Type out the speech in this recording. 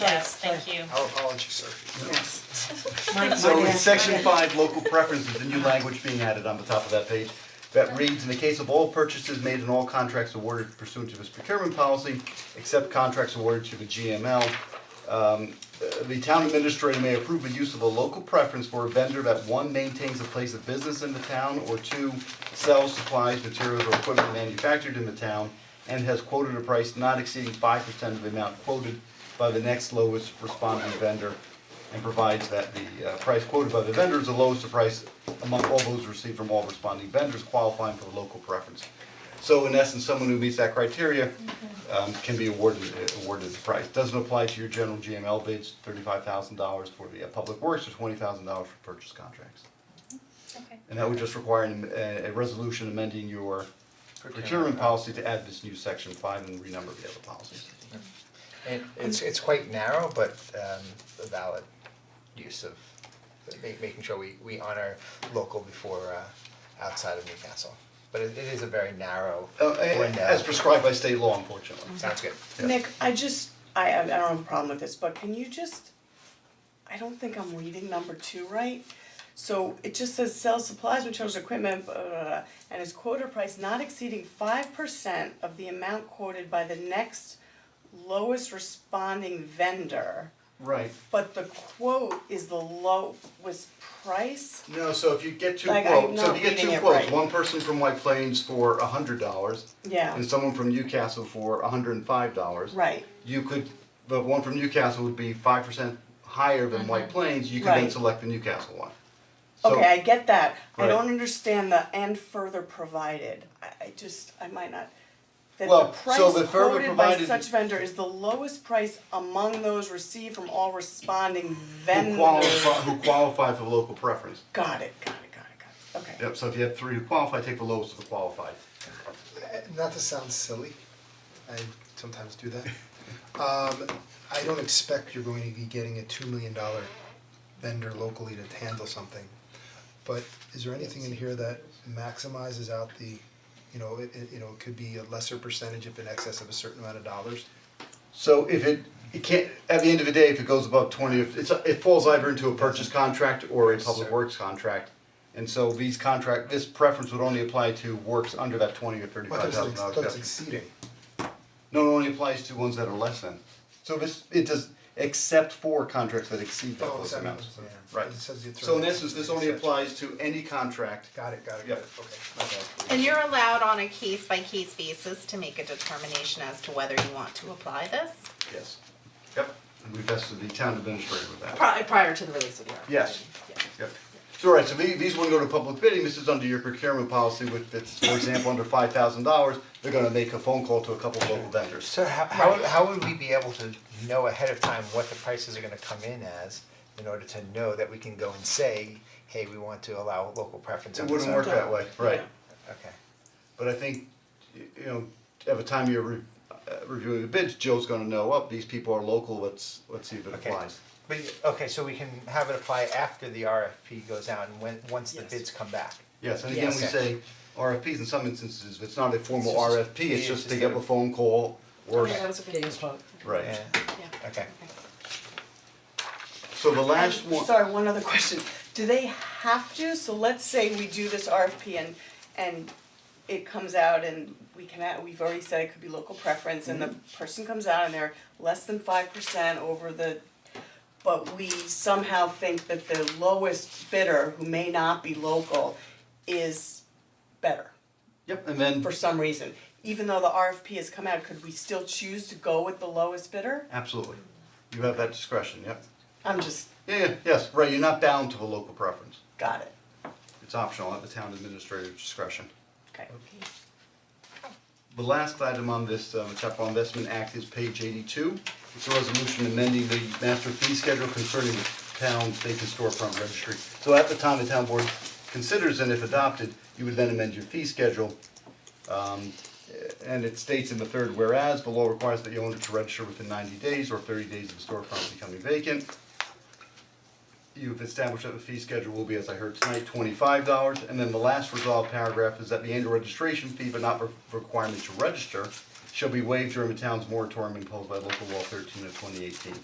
Yes, thank you. Our apologies, sir. Yes. So in section five, local preferences, the new language being added on the top of that page, that reads, in the case of all purchases made in all contracts awarded pursuant to this procurement policy, except contracts awarded to the GML, um, uh, the town administrator may approve the use of a local preference for a vendor that one, maintains a place of business in the town, or two, sells supplies, materials, or equipment manufactured in the town, and has quoted a price not exceeding five percent of the amount quoted by the next lowest responding vendor and provides that the uh, price quoted by the vendor is the lowest price among all those received from all responding vendors qualifying for the local preference. So in essence, someone who meets that criteria um, can be awarded awarded the price. Doesn't apply to your general GML bids, thirty-five thousand dollars for the uh, public works or twenty thousand dollars for purchase contracts. Okay. And that would just require an- a a resolution amending your procurement policy to add this new section five and renumber the other policies. And it's it's quite narrow, but um a valid use of ma- making sure we we honor local before uh outside of Newcastle. But it it is a very narrow Oh, Uh, window. as prescribed by state law, unfortunately. Sounds good. Nick, I just, I, I don't have a problem with this, but can you just, I don't think I'm reading number two right. So it just says sell supplies, materials, equipment, blah, blah, blah, and is quota price not exceeding five percent of the amount quoted by the next lowest responding vendor. Right. But the quote is the lowest price? No, so if you get two Like, I'm quotes, so not if you get reading two it quotes, right. one person from White Plains for a hundred dollars Yeah, and someone from Newcastle for hundred and five dollars. right, You could, the one from Newcastle would be five percent higher than White Plains, you could then Mm-hmm. Right. select the Newcastle one. So- okay, I get that, I Right. don't understand the and further provided, I, I just, I might not. That the Well, price so the further quoted by provided- such vendor is the lowest price among those received from all responding vendors. Who qualify, who qualify for local preference. Got it, got it, got it, got it, okay. Yep, so if you have three who qualify, take the lowest of the qualified. Uh, not to sound silly, I sometimes do that. Um, I don't expect you're going to be getting a two million dollar vendor locally to handle something. But is there anything in here that maximizes out the, you know, it, it, you know, it could be a lesser percentage if in excess of a certain amount of dollars? So if it, it can't, at the end of the day, if it goes above twenty, if it's, it falls either into a purchase contract or a public Sir. works contract. And so these contract, this preference would only apply to works under that twenty or What thirty-five does thousand it, dollar what is exceeding? No, it only applies to ones that are less than. So this, it does, except for contracts that exceed that Oh, those except- amounts. yeah. Right. It says you throw So in it- essence, this only applies to any contract. Got it, got it, Yeah. got it, okay. And you're allowed on a case by case basis to make a determination as to whether you want to apply this? Yes. Yep, and we vested the town administrator with that. Prior, Uh, prior to the release of the article. Yes. Yeah. Yep. So, all right, so the- these wouldn't go to public bidding, this is under your procurement policy, which, that's, for example, under five thousand dollars, they're gonna make a phone call to a couple of local vendors. So how how would- how would we be able to know ahead of time what the prices are gonna come in as in order to know that we can go and say, hey, we want to allow local preference on It this wouldn't work that way, right, Okay. but I think, y- you know, at the time you're re- uh, reviewing the bids, Joe's gonna know, up, these people are local, let's, let's see if it Okay. applies. But, okay, so we can have it apply after the RFP goes out and when, once the Yes. bids come back. Yes, and again, we Yes. say RFPs, in some instances, if it's not a formal It's just- RFP, it's yeah, just it's they just get a- a phone call or, Okay, that was a good question. right, Yeah, okay. so the last one. Sorry, one other question, do they have to, so let's say we do this RFP and, and it comes out and we can, add- we've already said it could be local preference and the person comes out and they're less than five percent over the, but we somehow think that the lowest bidder, who may not be local, is better Yep, and then, for some reason. Even though the RFP has come out, could we still choose to go with the lowest bidder? absolutely, you have that discretion, yep. I'm just, Yeah, yeah, yes, right, you're not bound to a local preference. got it, It's optional at the town administrator's discretion. okay. The last item on this, um, Capital Investment Act is page eighty-two. It's a resolution amending the master fee schedule concerning the town vacant storefront registry. So at the time the town board considers and if adopted, you would then amend your fee schedule. Um, and it states in the third, whereas the law requires that you owner to register within ninety days or thirty days of the storefront becoming vacant. You've established that the fee schedule will be, as I heard tonight, twenty-five dollars, and then the last resolved paragraph is that the annual registration fee, but not re- requirement to register, shall be waived during the town's moratorium imposed by local law thirteen of twenty eighteen.